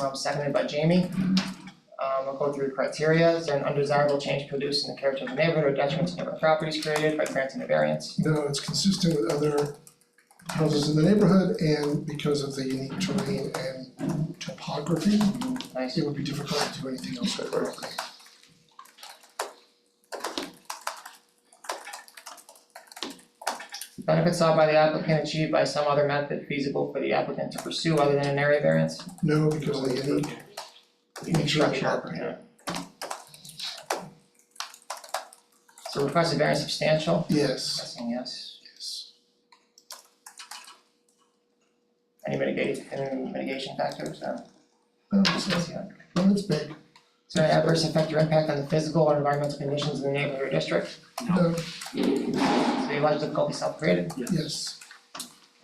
um, seconded by Jamie. Um, we'll go through the criteria, is there an undesirable change produced in the character of the neighborhood or detriment to neighborhood properties created by granting the variance? No, it's consistent with other houses in the neighborhood and because of the unique terrain and topography, Nice, it would be difficult to do anything else correctly. benefits sought by the applicant achieved by some other method feasible for the applicant to pursue other than an area variance? No, because of the unique unique topography. Yeah. So requested variance substantial, Yes, guessing yes. yes. Any mitigate, any mitigation factors, uh, No, Oh, it's, yes, not- yeah. no, it's big. Is there an adverse effect or impact on the physical or environmental conditions in the neighborhood or district? No, So the alleged difficulty self-created, yes,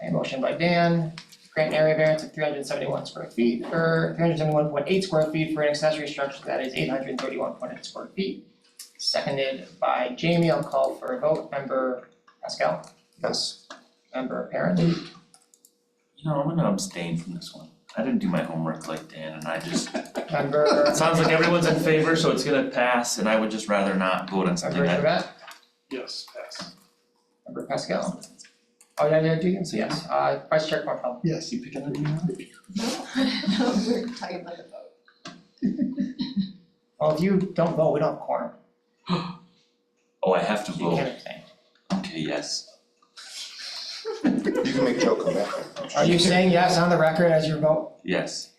a motion by Dan, grant an area variance of three hundred and seventy-one square feet, or three hundred and seventy-one point eight square feet for an accessory structure that is eight hundred and thirty-one point eight square feet. Seconded by Jamie, I'll call for a vote, member Pascal, Yes. member Parent. You know, I'm gonna abstain from this one. I didn't do my homework like Dan and I just, Member. it sounds like everyone's in favor, so it's gonna pass and I would just rather not vote on something Member that. Trevette, Yes, pass. member Pascal. Oh, yeah, yeah, do you, so yes, uh, Vice Chair Cornfeld, yes. You picking on me? No, we're talking about the vote. well, if you don't vote, we don't have quorum, Oh, I have to so you can't vote. abstain. Okay, yes. You can make Joe come back. Are you saying yes on the record as your vote? Yes.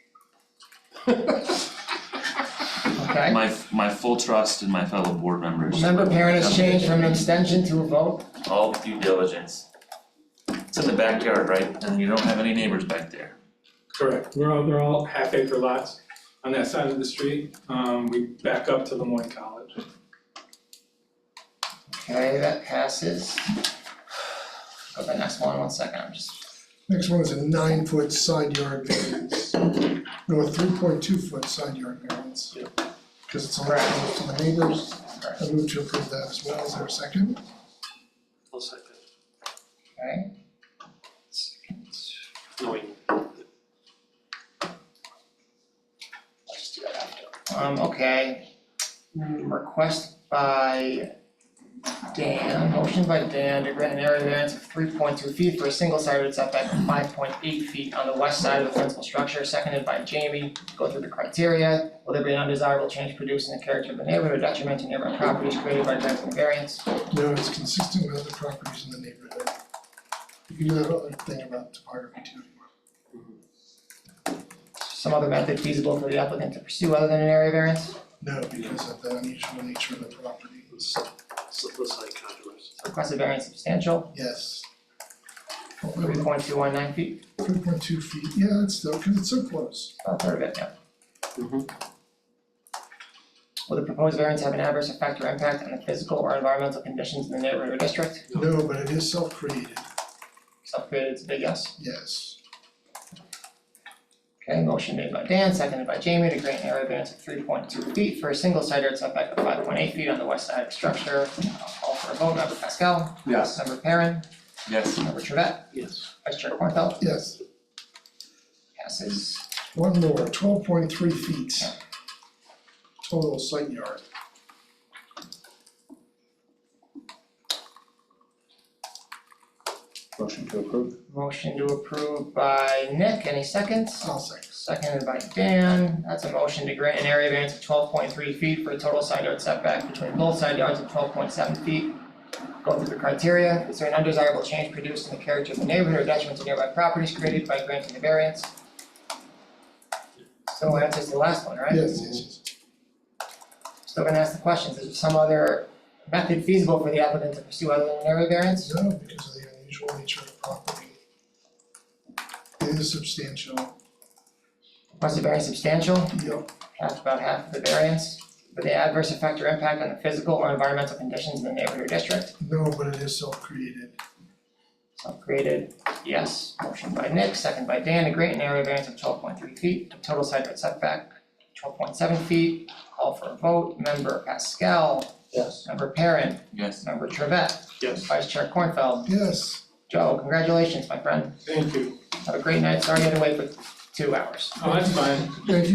Okay. My, my full trust in my fellow board members. Member Parent has changed from an extension to a vote, All due diligence. It's in the backyard, right? And you don't have any neighbors back there. Correct, we're all, they're all half acre lots on that side of the street, um, we back up to Lemoyne College. okay, that passes. Go to the next one, one second, I'm just, Next one is a nine foot side yard variance. No, a three point two foot side yard variance. Because it's a lot closer to the neighbors. I move to approve that as well. Is there a second? I'll second. okay, No, wait. um, okay. Request by Dan, motion by Dan to grant an area variance of three point two feet for a single sided setback of five point eight feet on the west side of the principal structure, seconded by Jamie. Go through the criteria, will there be an undesirable change produced in the character of the neighborhood or detriment to neighboring properties created by granting the variance? No, it's consistent with other properties in the neighborhood. You can do that other thing about topography too. some other method feasible for the applicant to pursue other than an area variance? No, because of the unusual nature of the property. Slip side controversy. Requested variance substantial, Yes. three point two one nine feet, Three point two feet, yeah, it's still, because it's so close. about a third of it, yeah. Mhm. Will the proposed variance have an adverse effect or impact on the physical or environmental conditions in the neighborhood or district? No, but it is self-created, Self-created, it's a big yes. yes. Okay, motion made by Dan, seconded by Jamie to grant an area variance of three point two feet for a single side yard setback of five point eight feet on the west side of the structure. I'll Call for a vote, member Pascal, Yes. member Perrin, Yes. member Trevette, Yes. vice chair Cornfeld, Yes, passes. one more, twelve point three feet. Total site yard, Motion to approve? Motion to approve by Nick, any seconds? I'll say. Seconded by Dan, that's a motion to grant an area variance of twelve point three feet for a total side yard setback between both side yards of twelve point seven feet. Go through the criteria, is there an undesirable change produced in the character of the neighborhood or detriment to nearby properties created by granting the variance? So that's just the last one, right? Yes, yes, yes. Still gonna ask the questions, is there some other method feasible for the applicant to pursue other than an area variance? No, because of the unusual nature of the property. It is substantial, Was the variance substantial? yep, half, about half of the variance for the adverse effect or impact on the physical or environmental conditions in the neighborhood or district. no, but it is self-created, Self-created, yes. Motion by Nick, second by Dan, to grant an area variance of twelve point three feet, total side yard setback twelve point seven feet. Call for a vote, member Pascal, Yes. member Perrin, Yes. member Trevette, Yes. vice chair Cornfeld. yes. Joe, congratulations, my friend. Thank you. Have a great night, sorry you had to wait for two hours. Oh, that's fine. Thank you